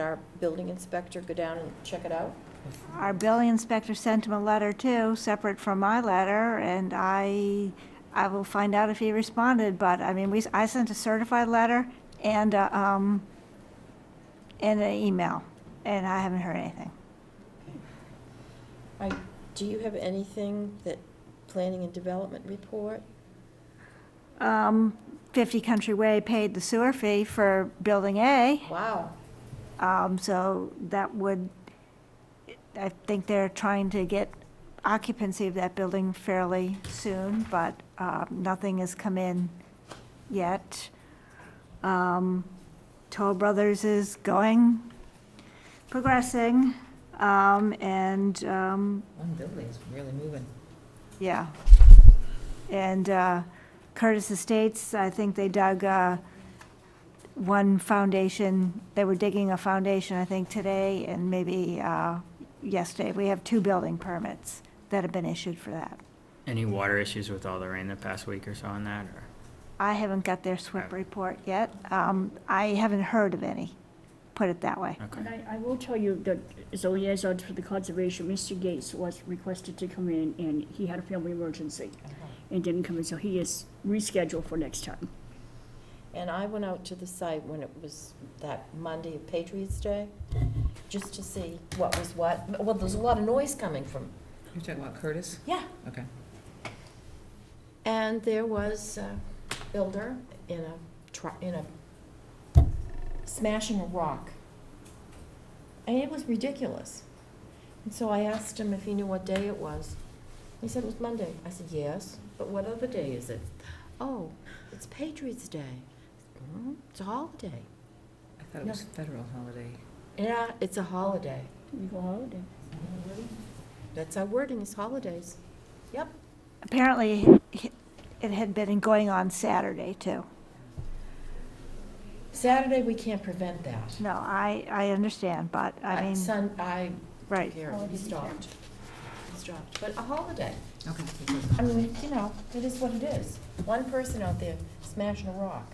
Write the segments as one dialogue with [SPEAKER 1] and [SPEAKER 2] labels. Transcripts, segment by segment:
[SPEAKER 1] our building inspector go down and check it out?
[SPEAKER 2] Our building inspector sent him a letter too, separate from my letter, and I, I will find out if he responded, but, I mean, we, I sent a certified letter and, uh, um, and an email, and I haven't heard anything.
[SPEAKER 1] I, do you have anything that, planning and development report?
[SPEAKER 2] Um, Fifty Country Way paid the sewer fee for Building A,
[SPEAKER 1] Wow,
[SPEAKER 2] um, so that would, I think they're trying to get occupancy of that building fairly soon, but, uh, nothing has come in yet. Um, Toll Brothers is going, progressing, um, and, um,
[SPEAKER 3] One building's really moving.
[SPEAKER 2] yeah. And uh, Curtis Estates, I think they dug uh, one foundation, they were digging a foundation, I think, today and maybe uh, yesterday. We have two building permits that have been issued for that.
[SPEAKER 4] Any water issues with all the rain the past week or so on that, or?
[SPEAKER 2] I haven't got their SWIP report yet. Um, I haven't heard of any, put it that way.
[SPEAKER 4] Okay.
[SPEAKER 5] And I, I will tell you that as a liaison for the conservation, Mr. Gates was requested to come in and he had a family emergency and didn't come in, so he is rescheduled for next time.
[SPEAKER 1] and I went out to the site when it was that Monday of Patriots' Day, just to see what was what, well, there's a lot of noise coming from,
[SPEAKER 3] You're talking about Curtis?
[SPEAKER 1] yeah,
[SPEAKER 3] Okay.
[SPEAKER 1] And there was a builder in a, tr- in a, smashing a rock. And it was ridiculous. And so I asked him if he knew what day it was. He said it was Monday. I said, yes, but what other day is it? Oh, it's Patriots' Day. "Mm, It's a holiday.
[SPEAKER 3] I thought it was federal holiday.
[SPEAKER 1] Yeah, it's a holiday.
[SPEAKER 5] We go holiday.
[SPEAKER 1] That's our wording, is holidays. Yep.
[SPEAKER 2] Apparently, it had been going on Saturday, too.
[SPEAKER 1] Saturday, we can't prevent that.
[SPEAKER 2] No, I, I understand, but I mean,
[SPEAKER 1] Sun, I
[SPEAKER 2] right.
[SPEAKER 1] Here, he stopped. He stopped, but a holiday.
[SPEAKER 3] Okay.
[SPEAKER 1] I mean, you know, it is what it is. One person out there smashing a rock.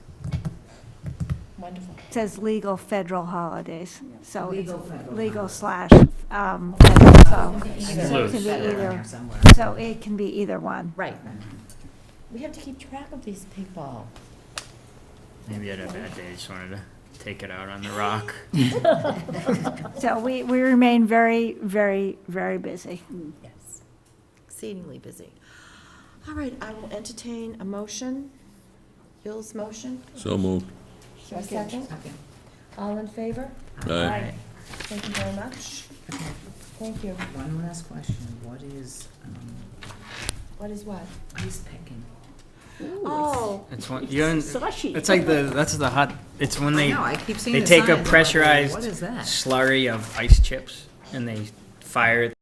[SPEAKER 1] Wonderful.
[SPEAKER 2] It Says legal federal holidays, so it's
[SPEAKER 3] Legal federal
[SPEAKER 2] legal slash, um, federal, so. It
[SPEAKER 4] Loose.
[SPEAKER 2] can be either,
[SPEAKER 3] Somewhere.
[SPEAKER 2] so it can be either one.
[SPEAKER 1] Right. We have to keep track of these people.
[SPEAKER 4] Maybe I had a bad day, just wanted to take it out on the rock.
[SPEAKER 2] So we, we remain very, very, very busy.
[SPEAKER 1] Yes. Exceedingly busy. All right, I will entertain a motion. Bill's motion.
[SPEAKER 6] So moved.
[SPEAKER 1] A second.
[SPEAKER 3] Okay.
[SPEAKER 1] All in favor?
[SPEAKER 6] Aye.
[SPEAKER 1] Thank you very much.
[SPEAKER 3] Okay.
[SPEAKER 1] Thank you.
[SPEAKER 3] One last question. What is um,
[SPEAKER 1] What is what?
[SPEAKER 3] ice picking?
[SPEAKER 1] Oh,
[SPEAKER 4] It's one, you haven't-
[SPEAKER 5] Sashi.
[SPEAKER 4] it's like the, that's the hot, it's when
[SPEAKER 3] I
[SPEAKER 4] they,
[SPEAKER 3] know, I keep seeing
[SPEAKER 4] they
[SPEAKER 3] the
[SPEAKER 4] take a
[SPEAKER 3] signs. I'm like,
[SPEAKER 4] pressurized
[SPEAKER 3] What is that?
[SPEAKER 4] slurry of ice chips and they fire